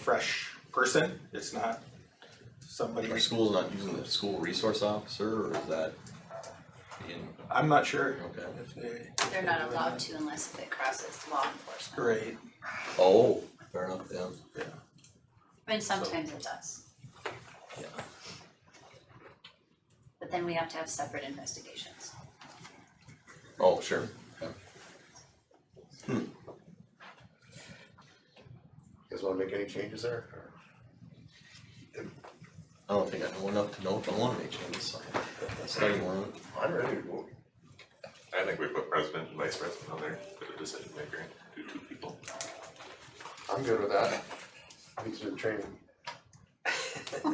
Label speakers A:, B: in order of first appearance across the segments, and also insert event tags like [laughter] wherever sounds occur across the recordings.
A: fresh person, it's not somebody,
B: Our school's not using the school resource officer, or is that in,
A: I'm not sure
B: okay?
A: if they.
C: They're not allowed to unless if it crosses law enforcement.
A: Right,
B: Oh, fair enough, yeah.
A: yeah,
C: I mean, sometimes it does.
B: Yeah.
C: But then we have to have separate investigations.
B: Oh, sure.
D: You guys wanna make any changes there? or-
B: I don't think I know enough to know if I wanna make changes, so study one.
D: I'm ready to vote.
E: I think we put president and vice president on there, put a decision maker, do two people.
D: I'm good with that. Needs some training.
F: A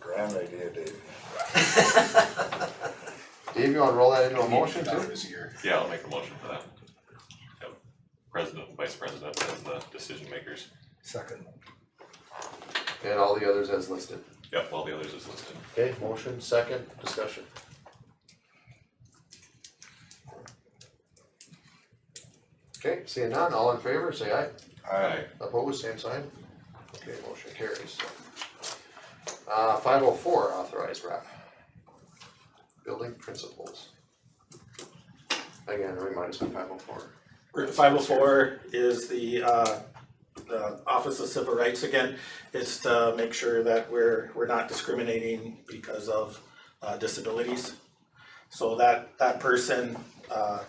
F: grand idea, Dave.
D: [laughs] Dave, you wanna roll that into a motion too?
F: This year.
E: Yeah, I'll make a motion for that. Yep. President and vice president as the decision makers.
F: Second.
D: And all the others as listed.
E: Yep, all the others is listed.
D: Okay, motion, second, discussion. Okay, seeing none, all in favor, say aye.
F: Aye.
D: Opposed, same sign. Okay, motion carries. Uh, five oh four, authorized rep. Building principles. Again, remind us of five oh four.
A: Five oh four is the uh, the Office of Civil Rights again. It's to make sure that we're, we're not discriminating because of uh, disabilities. So that, that person, uh,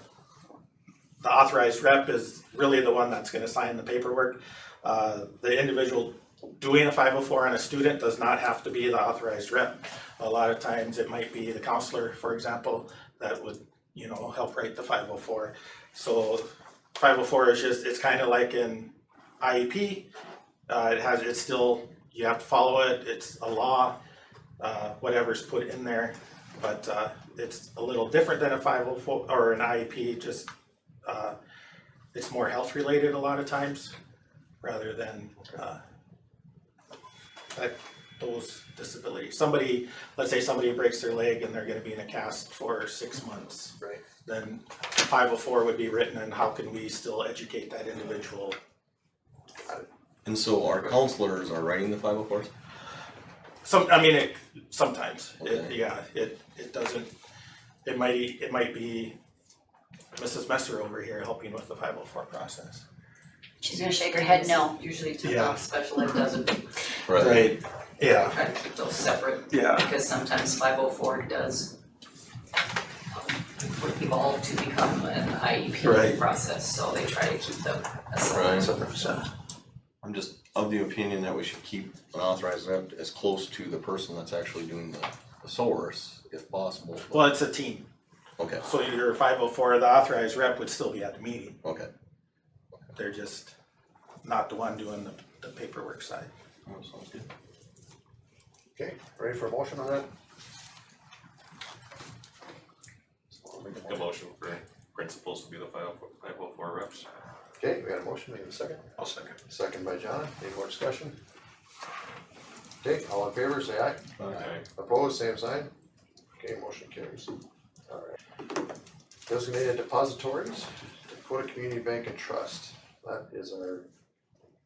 A: the authorized rep is really the one that's gonna sign the paperwork. Uh, the individual doing a five oh four on a student does not have to be the authorized rep. A lot of times it might be the counselor, for example, that would, you know, help write the five oh four. So five oh four is just, it's kind of like an IEP. Uh, it has, it's still, you have to follow it, it's a law, uh, whatever's put in there. But, uh, it's a little different than a five oh four, or an IEP, just, uh, it's more health related a lot of times, rather than, uh, that, those disabilities. Somebody, let's say somebody breaks their leg and they're gonna be in a cast for six months
D: Right.
A: then five oh four would be written and how can we still educate that individual?
B: And so our counselors are writing the five oh fours?
A: Some, I mean, it, sometimes, it,
B: Okay.
A: yeah, it, it doesn't, it might, it might be Mrs. Messer over here helping with the five oh four process.
C: She's gonna shake her head no.
G: Usually
A: Yeah.
G: to special ed doesn't,
A: Right, yeah,
G: try to keep those separate,
A: yeah,
G: because sometimes five oh four does um, evolve to become an
A: Right.
G: IEP process, so they try to keep them
B: Right.
G: aside.
B: I'm just of the opinion that we should keep an authorized rep as close to the person that's actually doing the, the source, if possible.
A: well, it's a team,
B: Okay,
A: so your five oh four, the authorized rep would still be at the meeting,
B: okay.
A: they're just not the one doing the, the paperwork side.
B: Oh, Sounds good.
D: Okay, ready for a motion on that?
E: The motion for principals to be the five oh four reps.
D: Okay, we got a motion, we have a second.
E: I'll second.
D: Second by John, any more discussion? Okay, all in favor, say aye.
E: Aye.
D: Opposed, same sign. Okay, motion carries. Alright. Designated depositories, Dakota Community Bank and Trust, that is our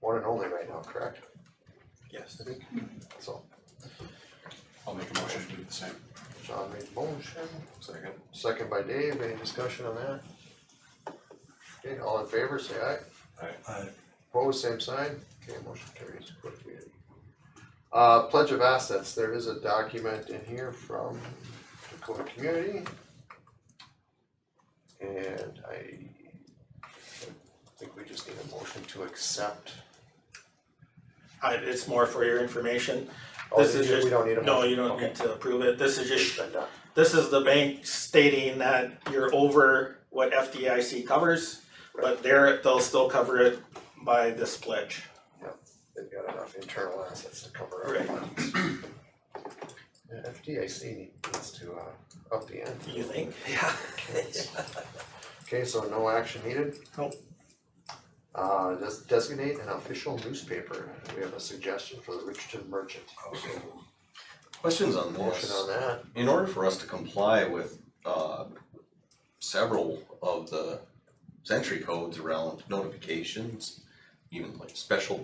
D: one and only right now, correct?
A: Yes,
D: So,
F: I'll make a motion to do the same.
D: John made the motion,
F: Second.
D: second by Dave, any discussion on that? Okay, all in favor, say aye.
E: Aye.
D: Opposed, same sign. Okay, motion carries. Dakota Community. Uh, pledge of assets, there is a document in here from Dakota Community. And I think we just need a motion to accept.
A: I, it's more for your information,
D: Oh,
A: this is just.
D: We don't need a
A: No,
D: motion.
A: you don't need to approve it, this is just
D: Then done.
A: This is the bank stating that you're over what FDIC covers, but they're, they'll still cover it by this pledge.
D: They've got enough internal assets to cover our
A: Right.
D: funds. Yeah, FDIC needs to uh up the end.
A: You think?
D: [laughs] Okay, so no action needed?
A: Nope.
D: Uh, does designate an official newspaper, we have a suggestion for the Richardson Merchant,
B: Questions on this?
D: motion on that,
B: in order for us to comply with uh several of the century codes around notifications, even like special